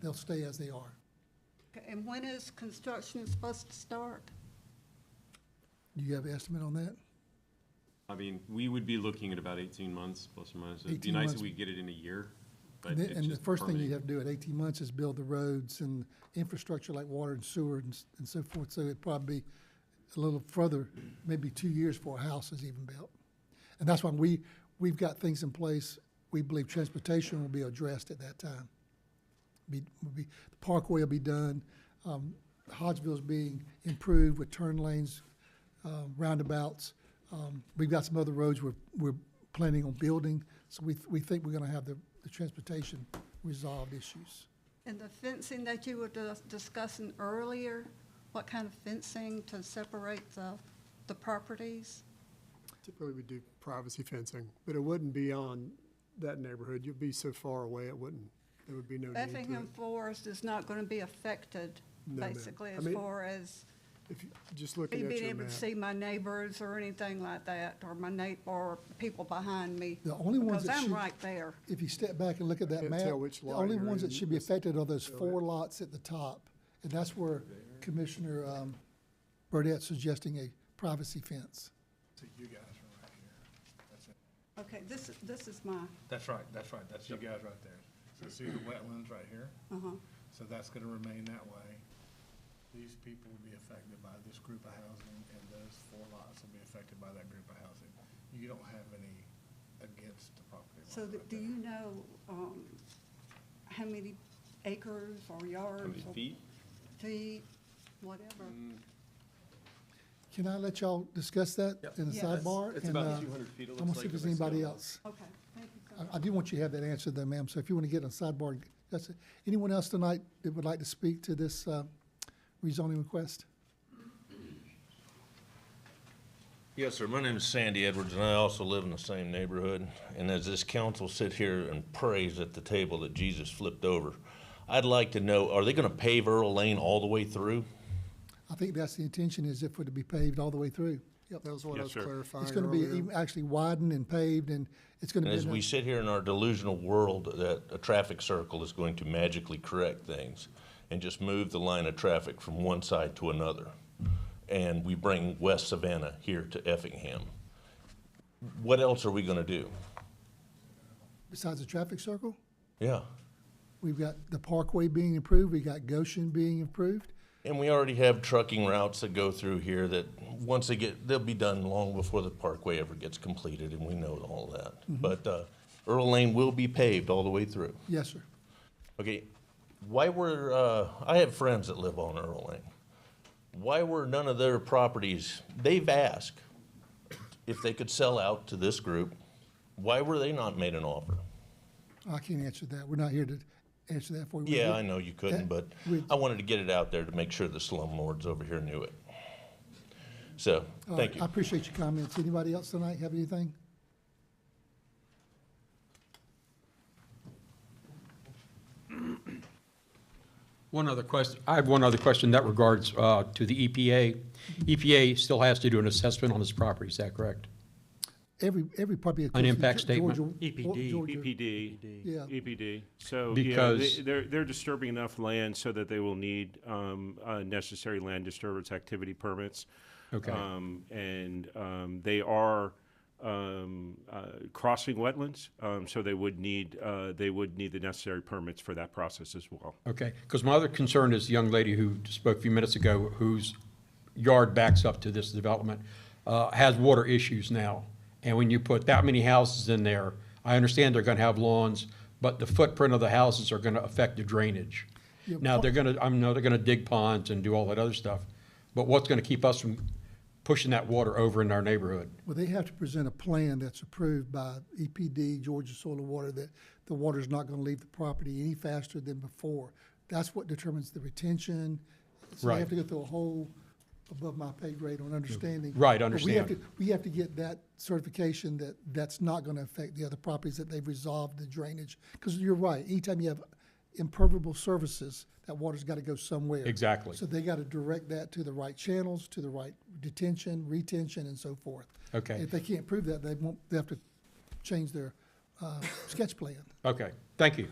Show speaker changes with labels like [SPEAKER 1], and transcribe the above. [SPEAKER 1] they'll stay as they are.
[SPEAKER 2] And when is construction supposed to start?
[SPEAKER 1] Do you have an estimate on that?
[SPEAKER 3] I mean, we would be looking at about 18 months, plus or minus. It'd be
[SPEAKER 1] 18
[SPEAKER 3] nice
[SPEAKER 1] months.
[SPEAKER 3] if we could get it in a year, but
[SPEAKER 1] And the-
[SPEAKER 3] it's
[SPEAKER 1] and the
[SPEAKER 3] just
[SPEAKER 1] first thing you
[SPEAKER 3] permitting.
[SPEAKER 1] have to do at eighteen months is build the roads and infrastructure like water and sewer and, s- and so forth. So it'd probably be a little further, maybe two years before a house is even built. And that's why we, we've got things in place. We believe transportation will be addressed at that time. Be, will be, the parkway will be done, um, Hodgsville's being improved with turn lanes, um, roundabouts. Um, We've got some other roads we're, we're planning on building, so we, th- we think we're gonna have the, the transportation resolved issues.
[SPEAKER 2] And the fencing that you were dis- discussing earlier, what kind of fencing to separate the, the properties?
[SPEAKER 4] Typically, we do privacy fencing, but it wouldn't be on that neighborhood. You'd be so far away, it wouldn't, there would be no need to.
[SPEAKER 2] Effingham Forest is not going to be affected,
[SPEAKER 4] No, ma'am.
[SPEAKER 2] basically,
[SPEAKER 4] I
[SPEAKER 2] as
[SPEAKER 4] mean-
[SPEAKER 2] far as
[SPEAKER 4] If, you- just looking
[SPEAKER 2] me
[SPEAKER 4] at
[SPEAKER 2] being
[SPEAKER 4] your
[SPEAKER 2] able
[SPEAKER 4] map.
[SPEAKER 2] to see my neighbors or anything like that, or my neighbor, or people behind me.
[SPEAKER 1] The only ones that
[SPEAKER 2] Because I'm
[SPEAKER 1] should-
[SPEAKER 2] right there.
[SPEAKER 1] If you step back and look at that
[SPEAKER 4] Can't
[SPEAKER 1] map,
[SPEAKER 4] tell which
[SPEAKER 1] the
[SPEAKER 4] lot
[SPEAKER 1] only
[SPEAKER 4] you're
[SPEAKER 1] ones that
[SPEAKER 4] in.
[SPEAKER 1] should be affected are those
[SPEAKER 4] Go
[SPEAKER 1] four
[SPEAKER 4] ahead.
[SPEAKER 1] lots at the top. And that's where Commissioner, um, Burdette's suggesting a privacy fence.
[SPEAKER 2] Okay, this, this is my,
[SPEAKER 5] That's right, that's right, that's you guys right there. So see the wetlands right here?
[SPEAKER 2] uh-huh.
[SPEAKER 5] So that's gonna remain that way. These people will be affected by this group of housing, and those four lots will be affected by that group of housing. You don't have any against the property line.
[SPEAKER 2] So th-
[SPEAKER 5] right
[SPEAKER 2] do
[SPEAKER 5] there.
[SPEAKER 2] you know um, how many acres or yards?
[SPEAKER 3] How many
[SPEAKER 2] or
[SPEAKER 3] feet?
[SPEAKER 2] Feet, whatever.
[SPEAKER 1] Can I let y'all discuss that in the
[SPEAKER 2] Yeah, that's-
[SPEAKER 1] sidebar?
[SPEAKER 3] It's
[SPEAKER 1] And,
[SPEAKER 3] about
[SPEAKER 1] uh,
[SPEAKER 3] 200 feet, it
[SPEAKER 1] I'm gonna
[SPEAKER 3] looks
[SPEAKER 1] see if
[SPEAKER 3] like.
[SPEAKER 1] there's anybody else.
[SPEAKER 2] Okay, thank you so
[SPEAKER 1] I,
[SPEAKER 2] much.
[SPEAKER 1] I do want you to have that answer though, ma'am, so if you want to get on sidebar, that's it. Anyone else tonight that would like to speak to this, uh, rezoning request?
[SPEAKER 6] Yes, sir. My name is Sandy Edwards, and I also live in the same neighborhood. And as this council sit here and prays at the table that Jesus flipped over, I'd like to know, are they gonna pave Earl Lane all the way through?
[SPEAKER 1] I think that's the intention, is if it to be paved all the way through. Yep.
[SPEAKER 4] That was what I
[SPEAKER 6] Yes,
[SPEAKER 4] was
[SPEAKER 6] sir. It's
[SPEAKER 4] clarifying
[SPEAKER 1] It's gonna be
[SPEAKER 4] earlier.
[SPEAKER 1] even actually widened and paved, and it's gonna
[SPEAKER 6] And
[SPEAKER 1] be.
[SPEAKER 6] as
[SPEAKER 1] in a-
[SPEAKER 6] we sit here in our delusional world that a traffic circle is going to magically correct things and just move the line of traffic from one side to another, and we bring West Savannah here to Effingham, what else are we gonna do?
[SPEAKER 1] Besides the traffic circle,
[SPEAKER 6] Yeah.
[SPEAKER 1] we've got the Parkway being improved, we got Goshen being improved.
[SPEAKER 6] And we already have trucking routes that go through here that, once they get, they'll be done long before the parkway ever gets completed, and we know all that. But uh, Earl Lane will be paved all the way through.
[SPEAKER 1] Yes, sir.
[SPEAKER 6] Okay, why were, uh, I have friends that live on Earl Lane. Why were none of their properties, they've asked if they could sell out to this group, why were they not made an offer?
[SPEAKER 1] I can't answer that. We're not here to answer that for you.
[SPEAKER 6] Yeah, I know you couldn't,
[SPEAKER 1] that-
[SPEAKER 6] but
[SPEAKER 1] we-
[SPEAKER 6] I wanted to get it out there to make sure the slumlords over here knew it. So,
[SPEAKER 1] All
[SPEAKER 6] thank
[SPEAKER 1] right,
[SPEAKER 6] you.
[SPEAKER 1] I appreciate your comments. Anybody else tonight have anything?
[SPEAKER 7] One other question, I have one other question that regards uh, to the EPA. EPA E still has to do an assessment on this property, is that correct?
[SPEAKER 1] Every, every property. of
[SPEAKER 7] An
[SPEAKER 1] course,
[SPEAKER 7] impact
[SPEAKER 1] Ge- Georgia-
[SPEAKER 7] statement.
[SPEAKER 8] E
[SPEAKER 1] Georgia-
[SPEAKER 8] EPD.
[SPEAKER 1] Yeah.
[SPEAKER 8] EPD. E So, yeah,
[SPEAKER 7] Because-
[SPEAKER 8] they- they're, they're disturbing enough land so that they will need um, uh, necessary land disturbance activity permits.
[SPEAKER 7] Okay.
[SPEAKER 8] Um, And um, they are um, uh, crossing wetlands, um, so they would need, uh, they would need the necessary permits for that process as well.
[SPEAKER 7] Okay, because my other concern is the young lady who spoke a few minutes ago, whose yard backs up to this development, uh, has water issues now. And when you put that many houses in there, I understand they're going to have lawns, but the footprint of the houses are going to affect the drainage.
[SPEAKER 1] Yeah,
[SPEAKER 7] Now,
[SPEAKER 1] pon-
[SPEAKER 7] they're going to, I know they're going to dig ponds and do all that other stuff, but what's going to keep us from pushing that water over in our neighborhood?
[SPEAKER 1] Well, they have to present a plan that's approved by EPD, Georgia Soil and Water, that the water's not gonna leave the property any faster than before. That's what determines the retention. So they have
[SPEAKER 7] Right.
[SPEAKER 1] to go through a whole above my pay grade on understanding.
[SPEAKER 7] Right,
[SPEAKER 1] But we have
[SPEAKER 7] understand.
[SPEAKER 1] to- We have to get that certification that that's not gonna affect the other properties, that they've resolved the drainage. Because you're right, anytime you have impermeable surfaces, that water's gotta go somewhere.
[SPEAKER 7] Exactly.
[SPEAKER 1] So they gotta direct that to the right channels, to the right detention, retention, and so forth.
[SPEAKER 7] Okay.
[SPEAKER 1] If they can't prove that, they won't, they have to change their uh, sketch plan.
[SPEAKER 7] Okay, thank you.